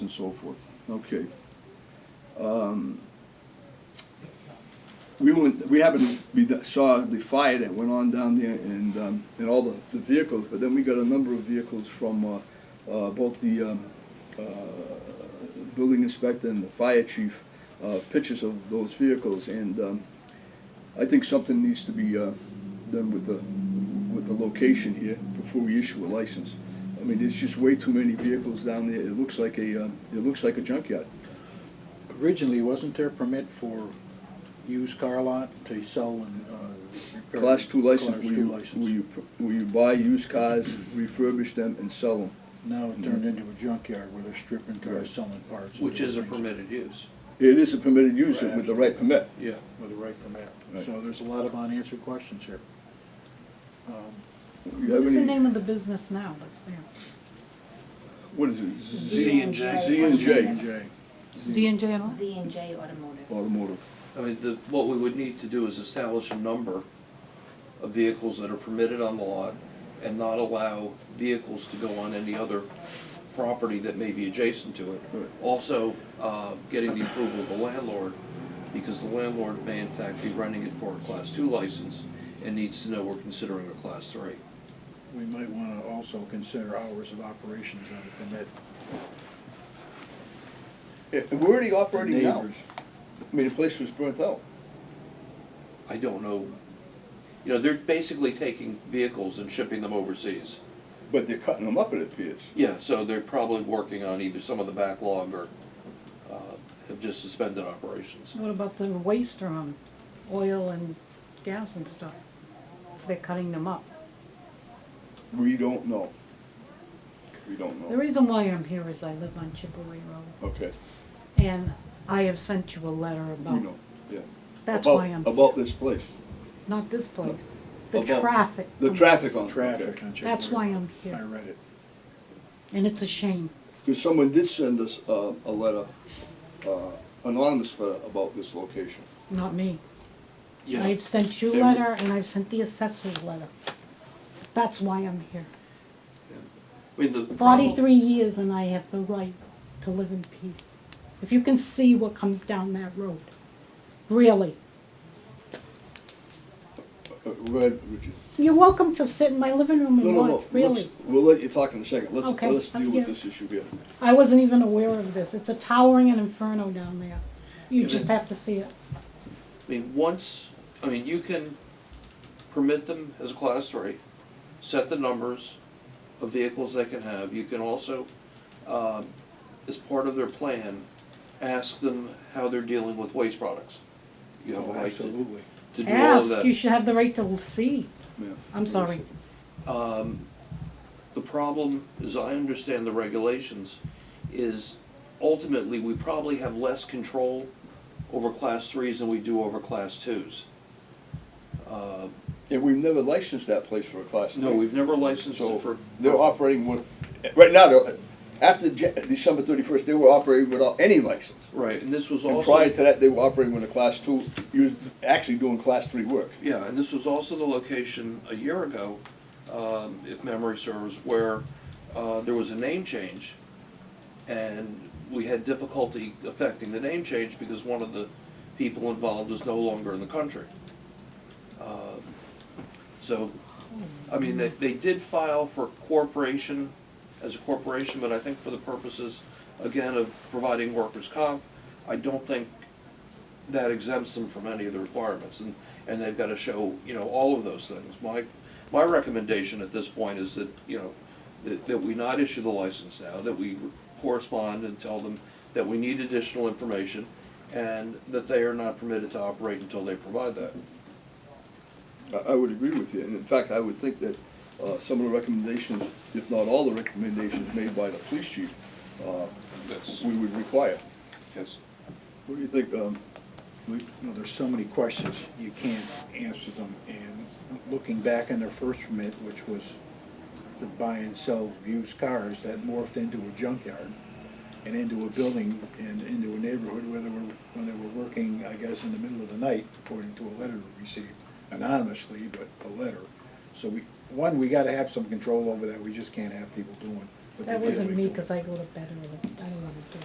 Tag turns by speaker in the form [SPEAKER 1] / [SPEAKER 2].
[SPEAKER 1] and so forth. Okay. Um, We went, we happened, we saw the fire that went on down there and, um, and all the, the vehicles, but then we got a number of vehicles from, uh, uh, both the, um, uh, building inspector and the fire chief, uh, pictures of those vehicles, and, um, I think something needs to be, uh, done with the, with the location here before we issue a license. I mean, there's just way too many vehicles down there, it looks like a, uh, it looks like a junkyard.
[SPEAKER 2] Originally, wasn't there a permit for used car lot to sell and uh, repair?
[SPEAKER 1] Class two license,
[SPEAKER 2] Class
[SPEAKER 1] where
[SPEAKER 2] two
[SPEAKER 1] you, where
[SPEAKER 2] license.
[SPEAKER 1] you, where you buy used cars, refurbish them and sell them.
[SPEAKER 2] Now it turned into a junkyard where they're stripping
[SPEAKER 1] Mm-hmm. Right.
[SPEAKER 2] cars, selling parts. and
[SPEAKER 3] Which is a
[SPEAKER 2] things
[SPEAKER 3] permitted use,
[SPEAKER 1] It is a permitted use with the right permit.
[SPEAKER 3] yeah.
[SPEAKER 2] With the right permit.
[SPEAKER 1] Right.
[SPEAKER 2] So there's a lot of unanswered questions here. Um,
[SPEAKER 1] You have
[SPEAKER 4] What's the
[SPEAKER 1] any-
[SPEAKER 4] name of the business now that's there?
[SPEAKER 1] What is it?
[SPEAKER 2] Z and J.
[SPEAKER 1] Z and J
[SPEAKER 2] J.
[SPEAKER 4] Z and J and all?
[SPEAKER 5] Z and J Automotive.
[SPEAKER 1] Automotive.
[SPEAKER 3] I mean, the, what we would need to do is establish a number of vehicles that are permitted on the lot and not allow vehicles to go on any other property that may be adjacent to it.
[SPEAKER 1] Right.
[SPEAKER 3] Also, uh, getting the approval of the landlord, because the landlord may in fact be renting it for a class two license and needs to know we're considering a class three.
[SPEAKER 2] We might want to also consider hours of operations on the permit.
[SPEAKER 1] Eh, We're already operating now.
[SPEAKER 2] Neighbors.
[SPEAKER 1] I mean, the place was burnt out.
[SPEAKER 3] I don't know, you know, they're basically taking vehicles and shipping them overseas.
[SPEAKER 1] But they're cutting them up, it appears.
[SPEAKER 3] Yeah, so they're probably working on either some of the backlog or uh, have just suspended operations.
[SPEAKER 4] What about the waste from oil and gas and stuff? If They're cutting them up.
[SPEAKER 1] We don't know. We don't
[SPEAKER 4] The
[SPEAKER 1] know.
[SPEAKER 4] reason why I'm here is I live on Chipaway Road,
[SPEAKER 1] Okay,
[SPEAKER 4] and I have sent you a letter
[SPEAKER 1] we
[SPEAKER 4] about,
[SPEAKER 1] know, yeah.
[SPEAKER 4] that's
[SPEAKER 1] About-
[SPEAKER 4] why I'm,
[SPEAKER 1] About this place,
[SPEAKER 4] not this place, the
[SPEAKER 1] about
[SPEAKER 4] traffic.
[SPEAKER 1] the
[SPEAKER 4] um,
[SPEAKER 1] traffic on.
[SPEAKER 2] Traffic on J.
[SPEAKER 4] That's why I'm
[SPEAKER 2] I
[SPEAKER 4] here,
[SPEAKER 2] read it.
[SPEAKER 4] and it's a shame.
[SPEAKER 1] Because someone did send us uh, a letter, uh, anonymous letter about this location.
[SPEAKER 4] Not me.
[SPEAKER 3] Yeah.
[SPEAKER 4] I've sent you a
[SPEAKER 1] Every-
[SPEAKER 4] letter, and I've sent the assessor's letter. That's why I'm here.
[SPEAKER 3] I mean, the problem,
[SPEAKER 4] Forty-three years and I have the right to live in peace. If you can see what comes down that road, really.
[SPEAKER 1] Uh, Red, Richard.
[SPEAKER 4] You're welcome to sit in my living room
[SPEAKER 1] No,
[SPEAKER 4] and
[SPEAKER 1] no, no,
[SPEAKER 4] watch,
[SPEAKER 1] let's,
[SPEAKER 4] really.
[SPEAKER 1] we'll let you talk in a second. Let's,
[SPEAKER 4] Okay,
[SPEAKER 1] let's deal
[SPEAKER 4] I'm
[SPEAKER 1] with
[SPEAKER 4] here.
[SPEAKER 1] this issue here.
[SPEAKER 4] I wasn't even aware of this. It's a towering an inferno down there. You
[SPEAKER 3] It
[SPEAKER 4] just
[SPEAKER 3] is-
[SPEAKER 4] have to see it.
[SPEAKER 3] I mean, once, I mean, you can permit them as a class three, set the numbers of vehicles they can have. You can also, um, as part of their plan, ask them how they're dealing with waste products. You have a right to
[SPEAKER 2] Absolutely.
[SPEAKER 3] to do all of that.
[SPEAKER 4] Ask, you should have the right to see.
[SPEAKER 1] Yeah.
[SPEAKER 4] I'm sorry.
[SPEAKER 3] Um, The problem, as I understand the regulations, is ultimately, we probably have less control over class threes than we do over class twos. Uh,
[SPEAKER 1] And we've never licensed that place for a class three.
[SPEAKER 3] No, we've never licensed
[SPEAKER 1] So
[SPEAKER 3] it for,
[SPEAKER 1] they're operating with, right now, they're- after Ja- December thirty-first, they were operating without any license.
[SPEAKER 3] right, and this was
[SPEAKER 1] And
[SPEAKER 3] also,
[SPEAKER 1] prior to that, they were operating with a class two, you was actually doing class three work.
[SPEAKER 3] yeah, and this was also the location a year ago, um, if memory serves, where uh, there was a name change, and we had difficulty affecting the name change because one of the people involved was no longer in the country. Uh, So, I mean, they, they did file for corporation, as a corporation, but I think for the purposes, again, of providing workers' comp, I don't think that exempts them from any of the requirements, and, and they've gotta show, you know, all of those things. My, my recommendation at this point is that, you know, that, that we not issue the license now, that we correspond and tell them that we need additional information, and that they are not permitted to operate until they provide that.
[SPEAKER 1] I, I would agree with you, and in fact, I would think that, uh, some of the recommendations, if not all the recommendations made by the police chief, uh,
[SPEAKER 3] That's,
[SPEAKER 1] we would require.
[SPEAKER 3] yes.
[SPEAKER 1] What do you think, um, Lee?
[SPEAKER 2] you know, there's so many questions, you can't answer them. And looking back on their first permit, which was to buy and sell used cars, that morphed into a junkyard and into a building and into a neighborhood where they were, when they were working, I guess, in the middle of the night, according to a letter we received anonymously, but a letter. So we, one, we gotta have some control over that, we just can't have people doing what they
[SPEAKER 4] That
[SPEAKER 2] feel
[SPEAKER 4] wasn't
[SPEAKER 2] they
[SPEAKER 4] me,
[SPEAKER 2] do.
[SPEAKER 4] because I go to bed early. I don't want to do it.